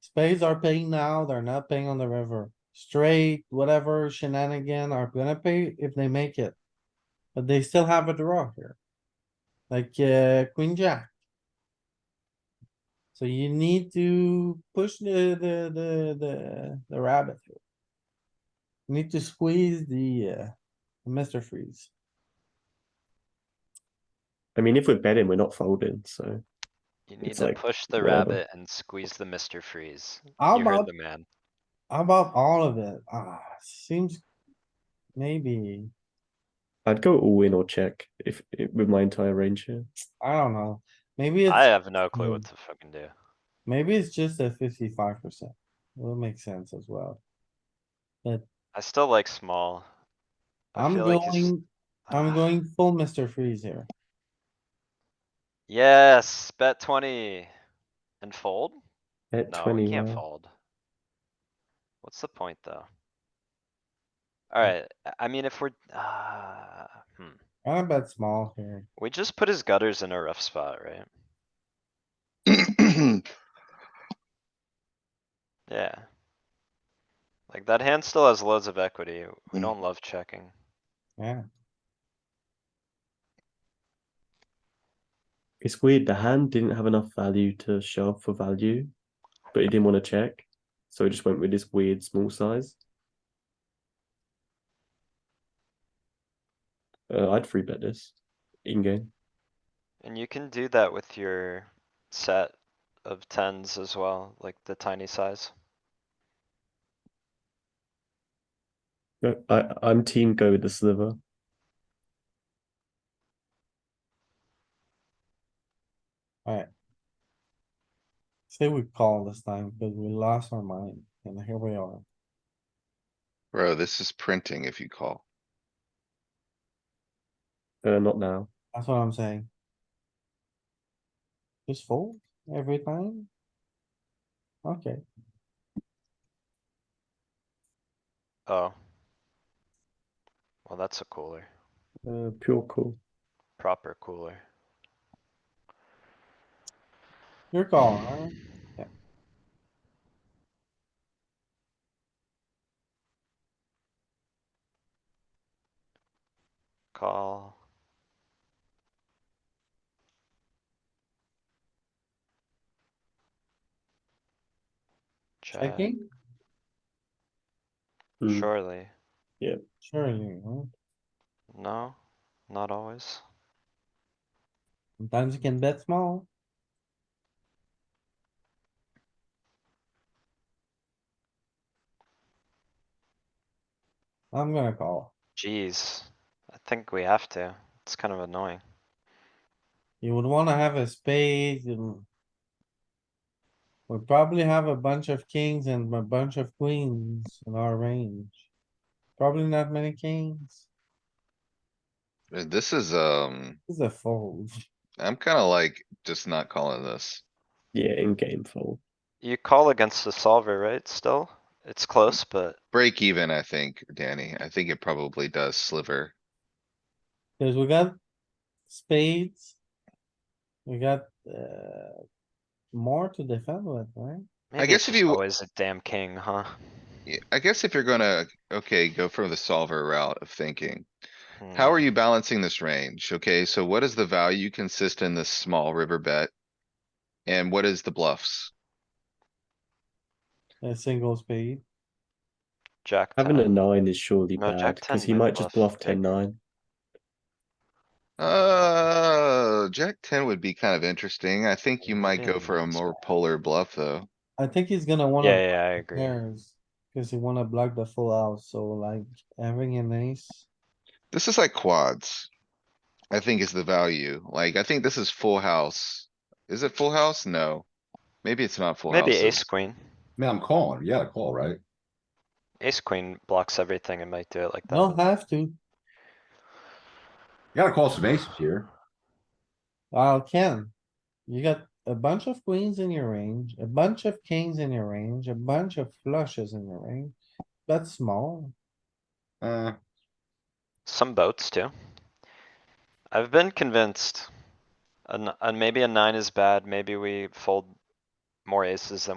Spades are paying now, they're not paying on the river. Straight, whatever shenanigan are gonna pay if they make it. But they still have a draw here. Like, uh, queen jack. So you need to push the, the, the, the, the rabbit. here. You Need to squeeze the, uh, Mr. Freeze. I mean, if we're betting, we're not folding. So You need It's to like, push the whatever. rabbit and squeeze the Mr. Freeze. How You heard about, the man. how about all of it? Ah, seems. Maybe, I'd go all in or check if, if with my entire range here. I don't know. Maybe it's. I have no clue what Hmm. to fucking do. Maybe it's just a fifty-five percent. Will make sense as well. I still like small. I I'm feel like it's- going, I'm Ah. going full Mr. Freeze here. Yes, bet twenty. And fold? At No, we twenty, can't wow. fold. What's the point, though? Hmm. Alright, I mean, if we're, uh, hmm, I bet small here. we just put his gutters in a rough spot, right? Yeah. Like that hand still has loads of equity. We Mm. don't love checking. Yeah, it's weird. The hand didn't have enough value to shove for value, but he didn't want to check, so he just went with this weird small size. Uh, I'd free bet this in game. And you can do that with your set of tens as well, like the tiny size. No, Uh, I I'm team go with the sliver. say we call this time because we lost our mind and here we are. Bro, this is printing if you call. Uh, not now. That's what I'm saying. Just fold every time? Okay, Oh. Well, that's a cooler, Uh, pure call. proper cooler. your call, alright? Mm, Yeah. Call. Check, Checking? Mm. surely. Surely, right? No, not always. Sometimes you can bet small. I'm gonna call. Jeez, I think we have to. It's kind of annoying. You would wanna have a spade and. We probably have a bunch of kings and a bunch of queens in our range. Probably not many kings. Uh, This is, um, This is a fold. I'm kinda like just not calling this. Yeah, in game fold. You call against the solver, right? Still? It's close, but Break even, I think, Danny. I think it probably does sliver. Cause we got spades. We got, uh, more to defend with, right? maybe it's guess if just you- always a damn king, huh? Yeah, I guess if you're gonna, okay, go for the solver route of thinking. Hmm. How are you balancing this range? Okay, so what is the value consist in this small river bet? And what is the bluffs? A single spade. Jack Having a ten. nine is surely Uh, No, bad Jack because 10 he with might just bluff bluff 10 big. 9. Uh, Jack ten would be kind of interesting. I think you might go Yeah, for a that's more polar bluff, though. I think he's gonna wanna. Yeah, yeah, I agree. pairs, cause you wanna block the full house, so like having an ace, This is like quads. I think is the value. Like, I think this is full house. Is it full house? No. Maybe it's not full house. Maybe ace queen. Man, I'm calling. Yeah, call, right? Ace queen blocks everything and might do it like don't that. have to, You gotta call some aces here. well, Ken. You got a bunch of queens in your range, a bunch of kings in your range, a bunch of flushes in your range, that's small. Uh, Some boats too. I've been convinced. And, and maybe a nine is bad. Maybe we fold more aces than